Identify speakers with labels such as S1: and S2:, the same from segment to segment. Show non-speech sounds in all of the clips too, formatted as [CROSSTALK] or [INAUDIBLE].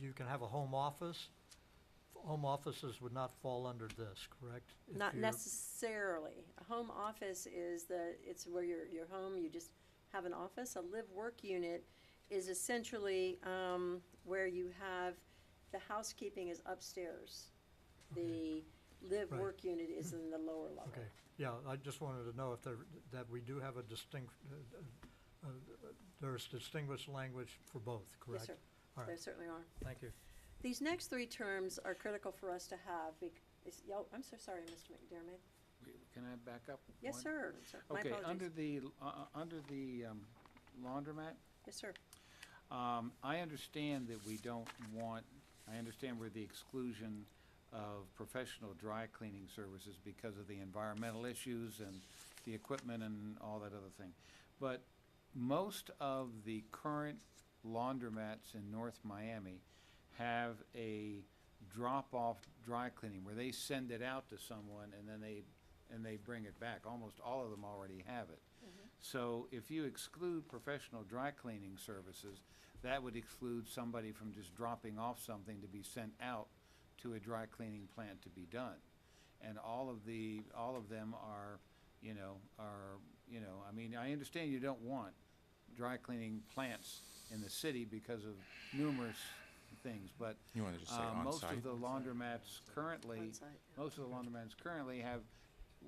S1: you can have a home office. Home offices would not fall under this, correct? If
S2: Not
S1: you're-
S2: necessarily. A home office is the, it's where your, your home, you just have an office. A live-work unit is essentially, um, where you have, the housekeeping is upstairs. The
S1: Right.
S2: live-work unit is in the lower level.
S1: Okay, yeah, I just wanted to know if there, that we do have a distinct, uh, uh, uh, there's distinguished language for both,
S2: Yes,
S1: correct?
S2: sir.
S1: All
S2: There
S1: right,
S2: certainly are.
S1: thank you.
S2: These next three terms are critical for us to have bec- is- yo- I'm so sorry, Mr. McDermott.
S3: Okay, Can I back up?
S2: Yes,
S3: one?
S2: sir. So- My
S3: Okay, under
S2: apologies.
S3: the, uh, uh, under the um, laundromat,
S2: Yes, sir.
S3: um, I understand that we don't want, I understand we're the exclusion of professional dry cleaning services because of the environmental issues and the equipment and all that other thing. But most of the current laundromats in North Miami have a drop-off dry cleaning where they send it out to someone and then they, and they bring it back. Almost all of them already have it. So if you exclude professional dry cleaning services, that would exclude somebody from just dropping off something to be sent out to a dry cleaning plant to be done. And all of the, all of them are, you know, are, you know, I mean, I understand you don't want dry cleaning plants in the city because of numerous things, but,
S4: You want to just say
S3: uh, most
S4: on-site?
S3: of the laundromats currently
S2: Onsite, yeah.
S3: most of the laundromats currently have,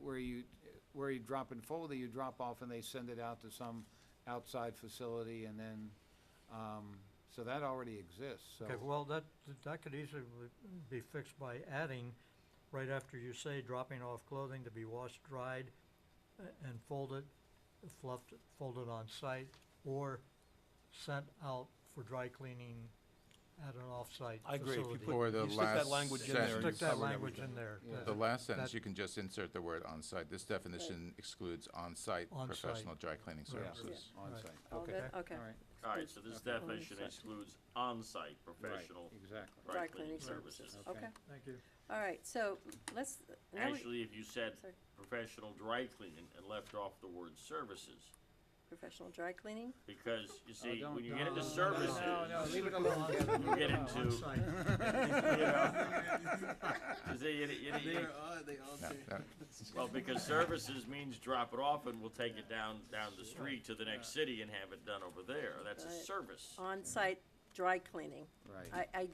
S3: where you, where you drop and fold it, you drop off and they send it out to some outside facility and then, um, so that already exists, so.
S1: Okay, well, that, that could easily be fixed by adding, right after you say dropping off clothing to be washed, dried, a- and folded, fluffed, folded on site, or sent out for dry cleaning at an off-site
S5: I agree. If you
S1: facility.
S5: put-
S4: Or the
S5: you stick that
S4: last
S5: language in
S4: sentence.
S5: there. you
S1: Stick that
S5: covered
S1: language
S5: everything.
S1: in there.
S3: Yeah.
S1: that-
S4: The last sentence,
S1: that-
S4: you can just insert the word on-site. This definition excludes on-site
S1: On-site.
S4: professional dry cleaning
S1: Right.
S4: services.
S3: On site,
S2: All
S3: okay,
S2: good? Okay.
S3: all right,
S6: All right, so this
S3: Okay.
S6: definition
S2: On-site.
S6: excludes on-site professional
S3: exactly.
S6: dry cleaning services.
S3: services.
S2: Okay,
S3: Okay.
S1: Thank you.
S2: all right, so let's, now we,
S6: Actually, if you said
S2: Sorry.
S6: professional dry cleaning and left off the word services,
S2: professional dry cleaning?
S6: because you
S3: Oh,
S6: see,
S3: don't-
S6: when you get into
S3: no, no,
S6: services,
S3: No, no, leave it
S1: Stick
S3: alone.
S1: it [LAUGHS]
S3: Kevin,
S6: you
S3: leave
S6: get [LAUGHS]
S3: it alone.
S6: into, you
S1: On-site.
S6: know. you see, you- you- you-
S4: No, no.
S6: Well, because services means drop it off and we'll take it down, down the street to the next city and have it done over there. That's a
S2: Right.
S6: service.
S2: On-site dry cleaning. I,
S3: [LAUGHS] Right,
S2: I,
S3: right.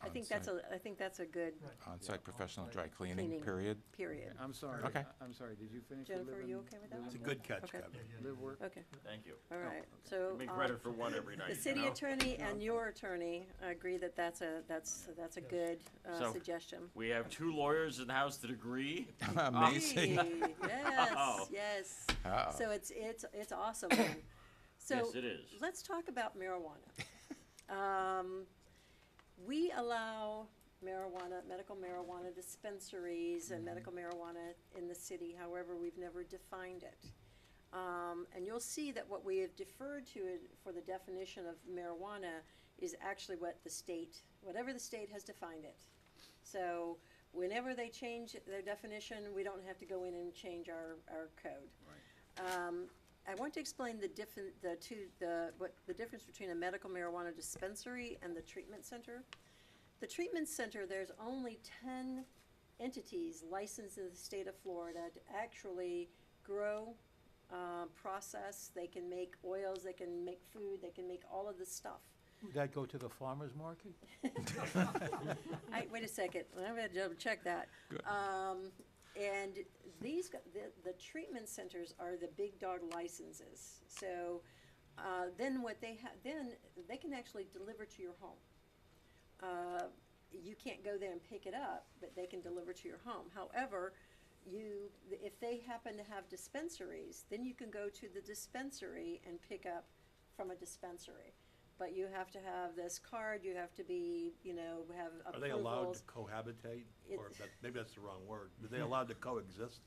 S2: I think that's a, I think that's a good
S1: Right.
S4: On-site professional
S1: on-site.
S4: dry cleaning,
S2: Cleaning.
S4: period.
S2: period.
S3: I'm sorry,
S4: Okay.
S3: I- I'm sorry, did you finish the live
S2: Jennifer, are you
S3: and-
S2: okay with that
S3: live
S2: one?
S5: It's a good catch,
S2: Okay.
S5: Kevin.
S3: and- Live work,
S2: Okay,
S6: Thank you.
S2: all right,
S6: You
S2: so,
S6: Make
S2: um,
S6: credit for one every night,
S2: the
S6: you
S2: city
S6: know?
S2: attorney and your attorney agree that that's a, that's, that's a good, uh,
S6: So-
S2: suggestion.
S6: We have two lawyers in the house that agree.
S4: Amazing. [LAUGHS]
S2: Hey,
S6: [LAUGHS]
S2: Yes,
S6: Wow.
S2: yes.
S4: Uh-oh.
S2: So it's, it's, it's awesome. [COUGHS] man. So
S6: Oh. Yes, it is.
S2: let's talk about marijuana. Um, we allow marijuana, medical marijuana dispensaries and medical marijuana in the city, however, we've never defined it. Um, and you'll see that what we have deferred to it for the definition of marijuana is actually what the state, whatever the state has defined it. So whenever they change their definition, we don't have to go in and change our, our code. Um, I want to explain the different, the two, the, what, the difference between a medical marijuana dispensary and the treatment center. The treatment center, there's only ten entities licensed in the state of Florida to actually grow, uh, process, they can make oils, they can make food, they can make all of this stuff.
S5: Would that go to the farmer's market?
S2: I, wait a second, I'm gonna double check that.
S4: Good.
S2: Um, and these, g- the, the treatment centers are the big dog licenses. So, uh, then what they have, then they can actually deliver to your home. Uh, you can't go there and pick it up, but they can deliver to your home. However, you, if they happen to have dispensaries, then you can go to the dispensary and pick up from a dispensary. But you have to have this card, you have to be, you know, have approvals.
S5: Are they allowed to cohabitate? Or
S2: It's-
S5: that, maybe that's the wrong word. Are they allowed to coexist?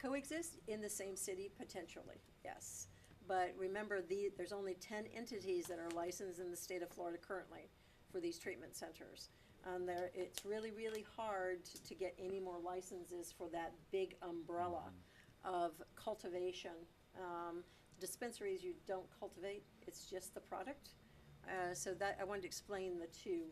S2: coexist in the same city potentially, yes. But remember, the, there's only ten entities that are licensed in the state of Florida currently for these treatment centers. And there, it's really, really hard to- to get any more licenses for that big umbrella of cultivation. Um, dispensaries, you don't cultivate, it's just the product. Uh, so that, I wanted to explain the two